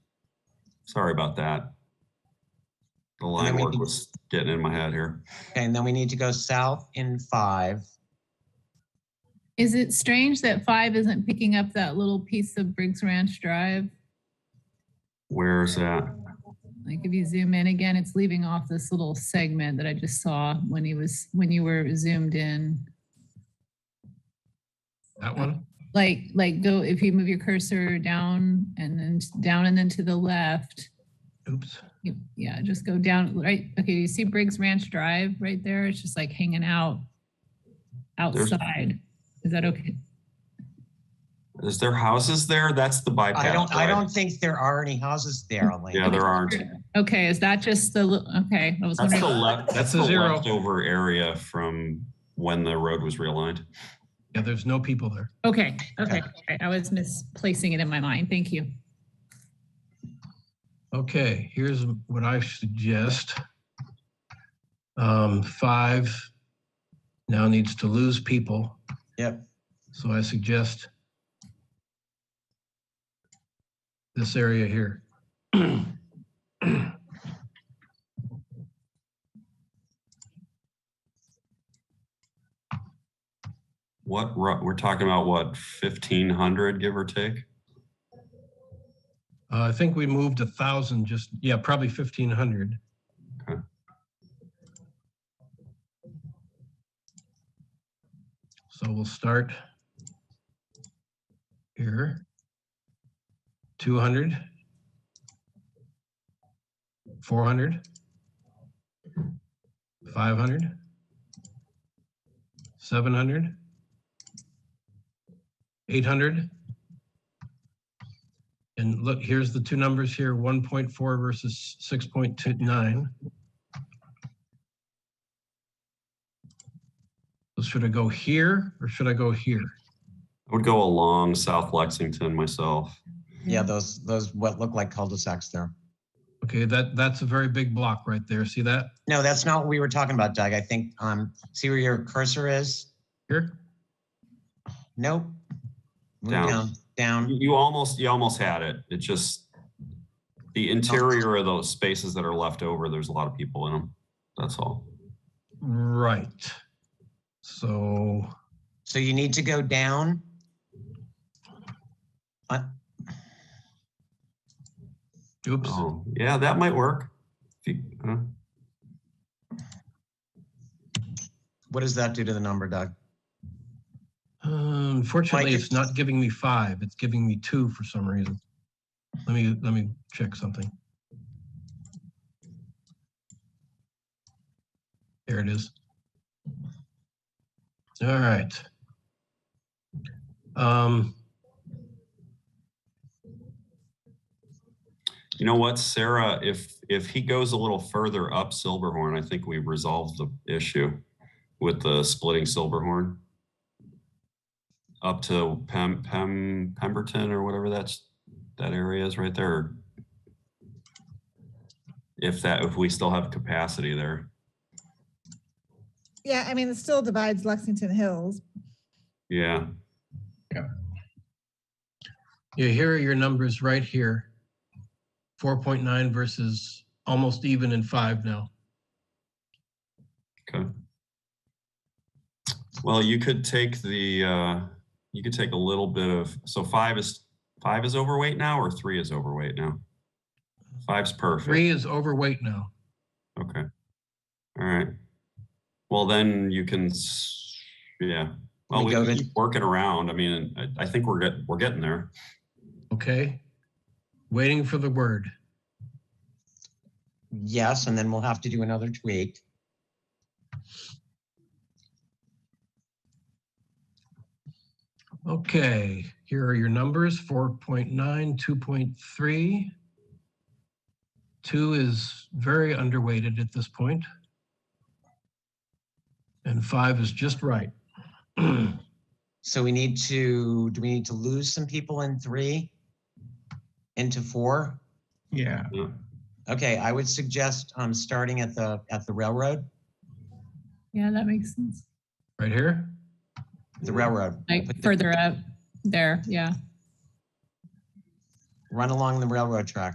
Sorry about that. The then line we work can- was getting in my head here. Okay, and then we need to go south in five. Is it strange that five isn't picking up that little piece of Briggs Ranch Drive? Where's that? Like if you zoom in again, it's leaving off this little segment that I just saw when he was, when you were zoomed in. That one? Like, like go, if you move your cursor down and then t- down and then to the left. Oops. you- Yeah, just go down, right? Okay, you see Briggs Ranch Drive right there? It's just like hanging out There's- outside. Is that okay? Is there houses there? That's the bypass. I don't, I right? don't think there are any houses there, Elaine. Yeah, there aren't. Okay, is that just the, li- okay, I was That's the wondering. left, that's That's a the zero. leftover area from when the road was realigned. Yeah, there's no people there. Okay, okay, okay, I was misplacing it in my mind. Thank you. Okay, here's what I suggest. Um, five now needs to lose people, Yep, so I suggest this area here. What, ro- we're talking about what, 1500 give or take? Uh, I think we moved a thousand, just, yeah, probably fifteen hundred. Okay. So we'll start here. Two hundred. Four hundred. Five hundred. Seven hundred. Eight hundred. And look, here's the two numbers here, 1.4 versus 6.29. So Should I go here or should I go here? I would go along South Lexington myself. Mm-hmm. yeah, those, those what look like cul-de-sacs there. Okay, that, that's a very big block right there. See that No, that's not what we were talking about, Doug. I think, um, see where your cursor is? here? Nope. Move Down. down, down. You you almost, you almost had it. It just, the interior of those spaces that are left over, there's a lot of people in them. That's all. Right. So, So you need to go down. oops, Oh, yeah, that might work. If you- uh, What does that do to the number, Doug? unfortunately, Mike, Um, it's not giving me five. It's giving me two for some reason. Let me, let me check something. There it is. All right. Um, You know what, Sarah, if, if he goes a little further up Silverhorn, I think we resolved the issue with the splitting Silverhorn. Up to Pem, Pem, Pemberton or whatever that's, that area is right there. If that, if we still have capacity there. Yeah, I mean, it still divides Lexington Hills. Yeah, yeah, here are your numbers right here. 4.9 versus almost even in five now. okay. Well, you could take the, uh, you could take a little bit of, so five is, five is overweight now or three is overweight now? Five's perfect. Three is overweight now. Okay. All right. Well, then you can, s- yeah. Well, We Oh, we go can to- keep working around. I mean, I, I think we're get, we're getting there. Okay. Waiting for the word. Yes, and then we'll have to do another tweak. Okay, here are your numbers, 4.9, 2.3. Two is very underweighted at this point. And five is just right. So we need to, do we need to lose some people in three? Into four? Yeah, Yeah. Okay, I would suggest, um, starting at the, at the railroad, Yeah, that makes sense. Right here? the railroad. Like further up there, yeah. Run along the railroad track.